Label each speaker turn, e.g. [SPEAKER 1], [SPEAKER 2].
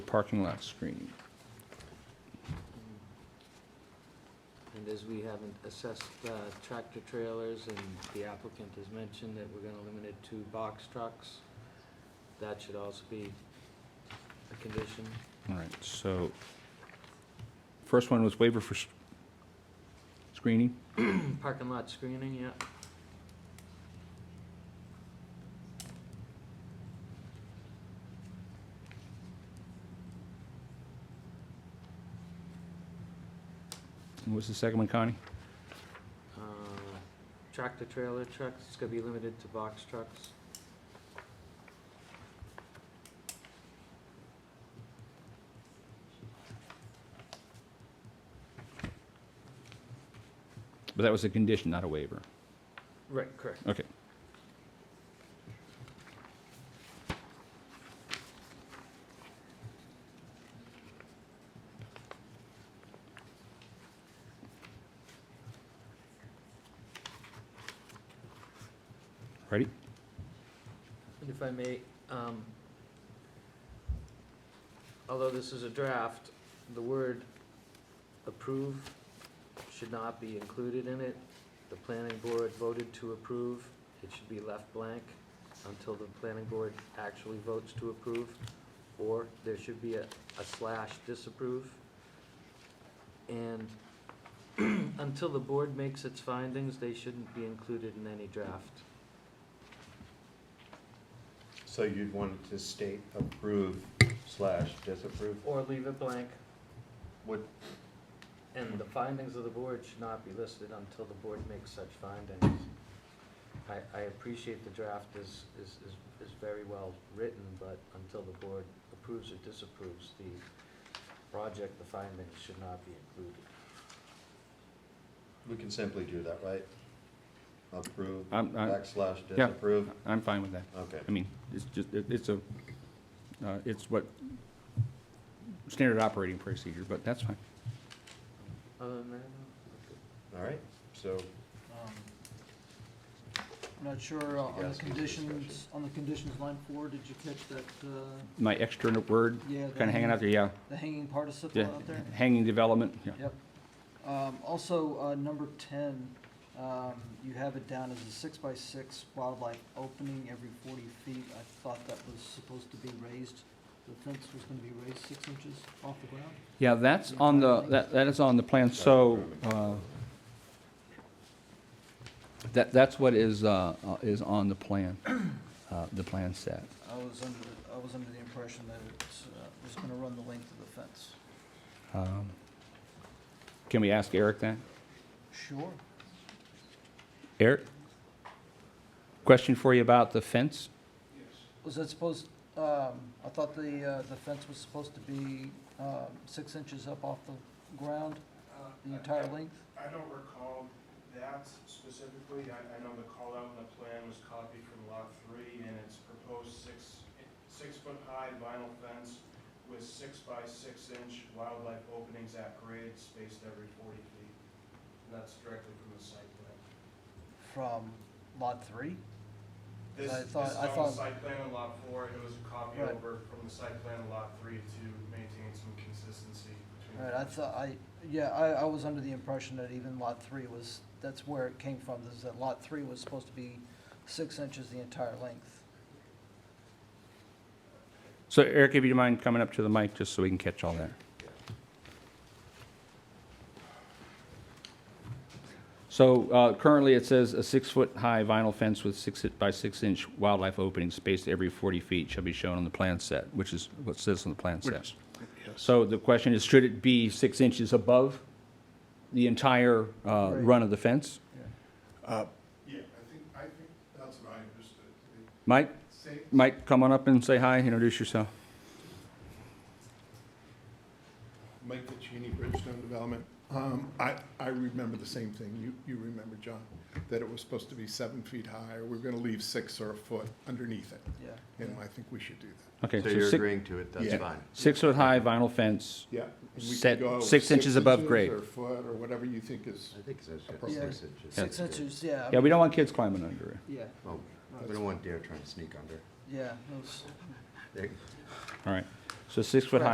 [SPEAKER 1] parking lot screening.
[SPEAKER 2] Mm. And as we haven't assessed uh, tractor trailers and the applicant has mentioned that we're gonna limit it to box trucks, that should also be a condition.
[SPEAKER 1] All right, so, first one was waiver for s- screening.
[SPEAKER 2] Parking lot screening, yeah.
[SPEAKER 1] And what's the second one, Connie?
[SPEAKER 2] Uh, Tractor trailer trucks, it's gonna be limited to box trucks.
[SPEAKER 1] But that was a condition, not a waiver.
[SPEAKER 2] Right, correct.
[SPEAKER 1] Okay. Ready?
[SPEAKER 2] And if I may, um, although this is a draft, the word approve should not be included in it. The planning board voted to approve. It should be left blank until the planning board actually votes to approve. Or there should be a a slash disapprove. And until the board makes its findings, they shouldn't be included in any draft.
[SPEAKER 3] So you'd want it to state approve slash disapprove?
[SPEAKER 2] Or leave it blank.
[SPEAKER 3] Would,
[SPEAKER 2] And the findings of the board should not be listed until the board makes such findings. I, I appreciate the draft is, is, is, is very well written, but until the board approves or disapproves the project, the findings should not be included.
[SPEAKER 3] we can simply do that, right? Approve
[SPEAKER 1] I'm, I'm,
[SPEAKER 3] backslash
[SPEAKER 1] Uh, yeah.
[SPEAKER 3] disapprove?
[SPEAKER 1] I'm fine with that.
[SPEAKER 3] Okay,
[SPEAKER 1] I mean, it's just, it- it's a, uh, it's what, standard operating procedure, but that's fine.
[SPEAKER 2] Other than that, no?
[SPEAKER 3] all right, so,
[SPEAKER 4] Um, I'm not sure uh, on
[SPEAKER 3] Yes,
[SPEAKER 4] the
[SPEAKER 3] we should
[SPEAKER 4] conditions,
[SPEAKER 3] discuss
[SPEAKER 4] on the conditions line four, did you catch that, uh,
[SPEAKER 1] My extra word,
[SPEAKER 4] yeah? the
[SPEAKER 1] kind of hanging out there, yeah,
[SPEAKER 4] The hanging participle
[SPEAKER 1] yeah,
[SPEAKER 4] out there?
[SPEAKER 1] hanging development, yeah.
[SPEAKER 4] Yep. Um, also, uh, number ten, um, you have it down as a six by six wildlife opening every forty feet. I thought that was supposed to be raised, the fence was gonna be raised six inches off the ground?
[SPEAKER 1] Yeah, that's on the, that, that is on the plan, so, uh, that, that's what is, uh, uh, is on the plan, uh, the plan set.
[SPEAKER 4] I was under, the- I was under the impression that it uh, was gonna run the length of the fence.
[SPEAKER 1] Um, Can we ask Eric that?
[SPEAKER 4] Sure.
[SPEAKER 1] Eric? Question for you about the fence?
[SPEAKER 4] Was that supposed, um, I thought the, uh, the fence was supposed to be, um, six inches up off the ground,
[SPEAKER 5] Uh,
[SPEAKER 4] the
[SPEAKER 5] I-
[SPEAKER 4] entire
[SPEAKER 5] I-
[SPEAKER 4] length?
[SPEAKER 5] I don't recall that specifically. I, I know the call out in the plan was copied from lot three, and it's proposed six, six-foot-high vinyl fence with six by six-inch wildlife openings at grade spaced every forty feet. And that's directly from the site plan.
[SPEAKER 4] From lot three?
[SPEAKER 5] This,
[SPEAKER 4] I
[SPEAKER 5] this is
[SPEAKER 4] thought- I
[SPEAKER 5] on the
[SPEAKER 4] thought-
[SPEAKER 5] site plan on lot four, and it was a copy
[SPEAKER 4] Right.
[SPEAKER 5] over from the site plan on lot three to maintain some consistency between.
[SPEAKER 4] Right, I thought, I, yeah, I, I was under the impression that even lot three was, that's where it came from, is that lot three was supposed to be six inches the entire length.
[SPEAKER 1] So Eric, if you mind coming up to the mic, just so we can catch all that. So uh, currently, it says a six-foot-high vinyl fence with six by six-inch wildlife opening spaced every 40 feet shall be shown on the plan set, which is what says on the plan set. So the question is, should it be six inches above the entire uh,
[SPEAKER 4] Right.
[SPEAKER 1] run of the fence?
[SPEAKER 5] Yeah, I think, I think that's what I understood.
[SPEAKER 1] Mike,
[SPEAKER 5] Same,
[SPEAKER 1] Mike, come on up and say hi, introduce yourself.
[SPEAKER 6] Mike Ticini, Bridgestone Development. Um, I, I remember the same thing you, you remember, John, that it was supposed to be seven feet high, or we're gonna leave six or a foot underneath it,
[SPEAKER 4] Yeah.
[SPEAKER 6] and I think we should do that.
[SPEAKER 1] Okay,
[SPEAKER 3] so you're
[SPEAKER 1] six-
[SPEAKER 3] agreeing to it, that's
[SPEAKER 6] Yeah.
[SPEAKER 3] fine.
[SPEAKER 1] six-foot-high vinyl fence
[SPEAKER 6] Yeah. and we could
[SPEAKER 1] Set
[SPEAKER 6] go
[SPEAKER 1] six inches above
[SPEAKER 6] inches
[SPEAKER 1] grade.
[SPEAKER 6] Or a foot, or whatever you think is,
[SPEAKER 3] I think it's
[SPEAKER 6] Appropriate.
[SPEAKER 3] six inches.
[SPEAKER 4] Six inches, yeah.
[SPEAKER 1] Yeah, we don't want kids climbing under it.
[SPEAKER 4] Yeah,
[SPEAKER 3] Well, we don't want deer trying to sneak under.
[SPEAKER 4] yeah, it was-
[SPEAKER 3] There-
[SPEAKER 1] All right. So six foot
[SPEAKER 4] Right.
[SPEAKER 1] high